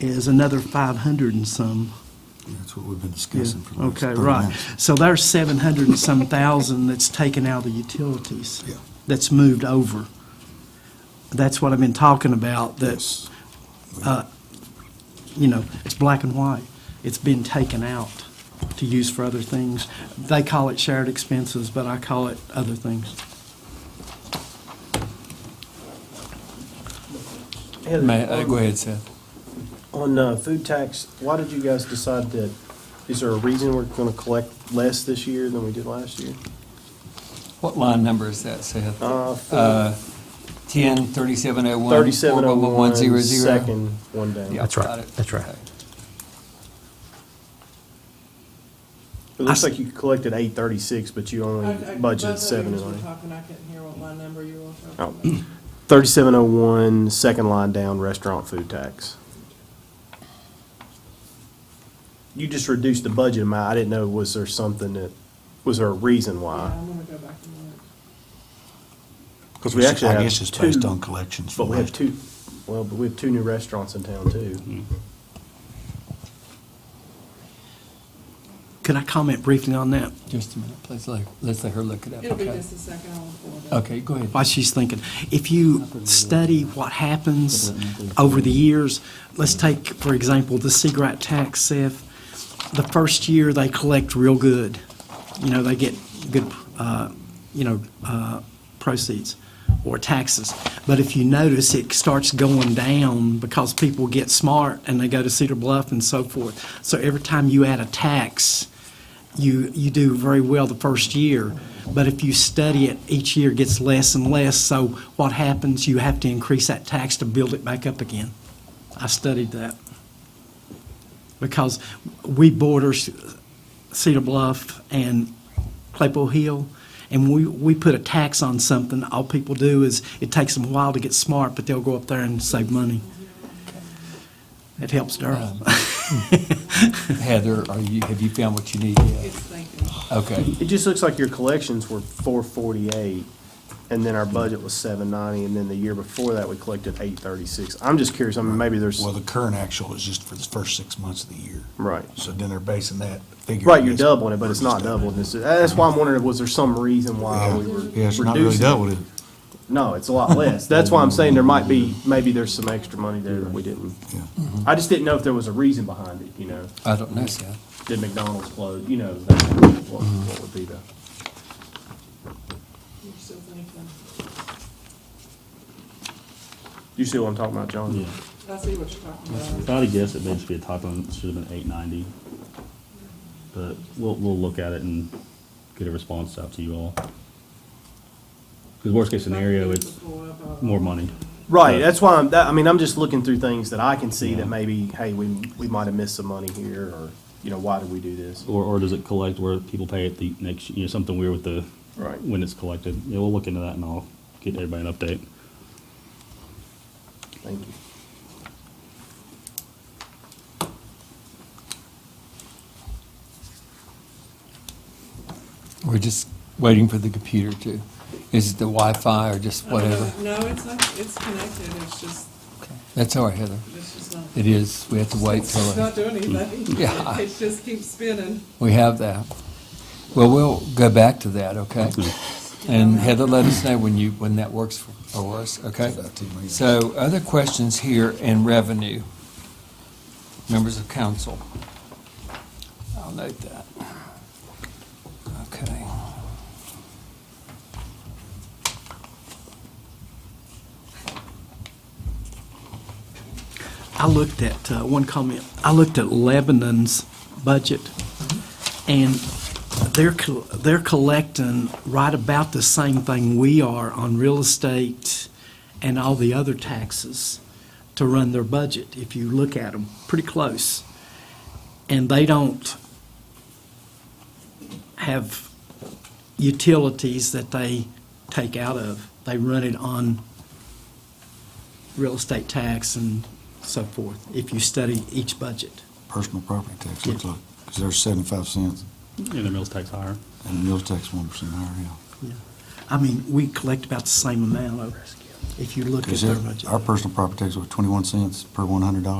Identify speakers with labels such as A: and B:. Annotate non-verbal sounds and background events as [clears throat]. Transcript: A: is another 500 and some.
B: That's what we've been
A: Yeah,
B: discussing for the last
A: Okay,
B: 30
A: right.
B: minutes.
A: So there's 700 and some thousand that's taken out of the utilities.
B: Yeah.
A: That's moved over. That's what I've been talking about, that,
B: Yes.
A: you know, it's black and white. It's been taken out to use for other things. They call it shared expenses, but I call it other things.
C: Heather,
D: May, uh,
C: on-
D: go ahead, Seth.
C: On uh, food tax, why did you guys decide that, is there a reason we're going to collect less this year than we did last year?
D: What line number is that, Seth?
C: Uh, four-
D: Uh, ten, thirty-seven oh one.
C: 3701,
D: zero zero.
C: second oh one down.
D: Yeah,
E: That's right.
D: got it.
E: That's right.
D: Okay.
C: It looks like you collected eight thirty-six, but you only
F: I- I- both of
C: budgeted
F: you
C: seven
F: guys
C: and
F: were
C: eight.
F: talking, I couldn't hear what line number you were
C: Oh. [clears throat]
F: talking about.
C: Thirty-seven oh one, second line down, restaurant food tax. You just reduced the budget amount. I didn't know, was there something that, was there a reason
F: Yeah,
C: why?
F: I'm gonna go back and look.
B: Because
C: we actually
B: I
C: have
B: guess it's based
C: two,
B: on collections.
C: But
B: from
C: we have
B: last
C: two, well, but we have two new restaurants in town too.
A: Could I comment briefly on that?
D: Just a minute, let's let, let's let her look it up,
F: It'll be
D: okay?
F: just a second, I'll pull it up.
D: Okay, go ahead.
A: while she's thinking. If you study what happens over the years, let's take, for example, the cigarette tax, Seth. The first year, they collect real good. You know, they get good, uh, you know, uh, proceeds or taxes. But if you notice, it starts going down because people get smart and they go to Cedar Bluff and so forth. So every time you add a tax, you, you do very well the first year, but if you study it, each year gets less and less, so what happens, you have to increase that tax to build it back up again. I studied that. Because we border C- Cedar Bluff and Claypool Hill, and we, we put a tax on something, all people do is, it takes them a while to get smart, but they'll go up there and save money. It helps Durham.
D: Heather, are you, have you found what you need yet?
F: It's thinking.
D: Okay,
C: It just looks like your collections were four forty-eight, and then our budget was seven ninety, and then the year before that, we collected eight thirty-six. I'm just curious, I mean, maybe there's,
B: year. Well, the current actual is just for the first six months of the year.
C: right.
B: So then they're basing that figure.
C: Right, you're
B: against-
C: doubling it, but it's not doubling. This is- That's why I'm wondering, was there some reason why
B: Yeah,
C: we were
B: Yeah, it's not really
C: reducing?
B: double,
C: it?
B: it.
C: No, it's a lot less. That's why I'm saying there might be, maybe there's some extra money there that we didn't.
B: Yeah.
C: I just didn't know if there was a reason behind it, you know?
D: I don't know, Seth.
C: Did McDonald's close, you know, that- what what would be the?
F: You're still thinking.
C: You see what I'm talking about, John?
G: Yeah,
F: I see what you're talking about.
G: if I had to guess, it may just be a typo, and it should have been eight ninety. But we'll, we'll look at it and get a response out to you all. Because worst case scenario, it's more money.
C: Right,
G: But-
C: that's why I'm, that, I mean, I'm just looking through things that I can see that maybe, hey, we, we might have missed some money here, or, you know, why did we do this?
G: Or, or does it collect where people pay it the next, you know, something weird with the,
C: Right.
G: when it's collected. Yeah, we'll look into that and I'll get everybody an update.
C: Thank you.
D: We're just waiting for the computer to, is it the Wi-Fi or just whatever?
F: No, it's not, it's connected, it's just,
D: That's all right, Heather.
F: it's just not,
D: It is, we have to wait till,
F: it's
D: it-
F: not doing anything.
D: Yeah.
F: [laughs] It just keeps spinning.
D: we have that. Well, we'll go back to that, okay? And Heather, let us know when you, when that works for for us, okay?
B: It's about two million.
D: So other questions here in revenue, members of council. I'll note that. Okay.
A: I looked at, uh, one comment, I looked at Lebanon's budget, and they're, col- they're collecting right about the same thing we are on real estate and all the other taxes to run their budget, if you look at them, pretty close. And they don't have utilities that they take out of. They run it on real estate tax and so forth, if you study each budget.
B: Personal property tax, looks like, because they're seventy-five cents
G: And the mills tax higher.
B: and the meals tax one percent higher, yeah.
A: I mean, we collect about the same amount of
H: if you look at
I: Is
H: their
I: it,
H: budget.
I: our personal property tax was 21 cents per $100?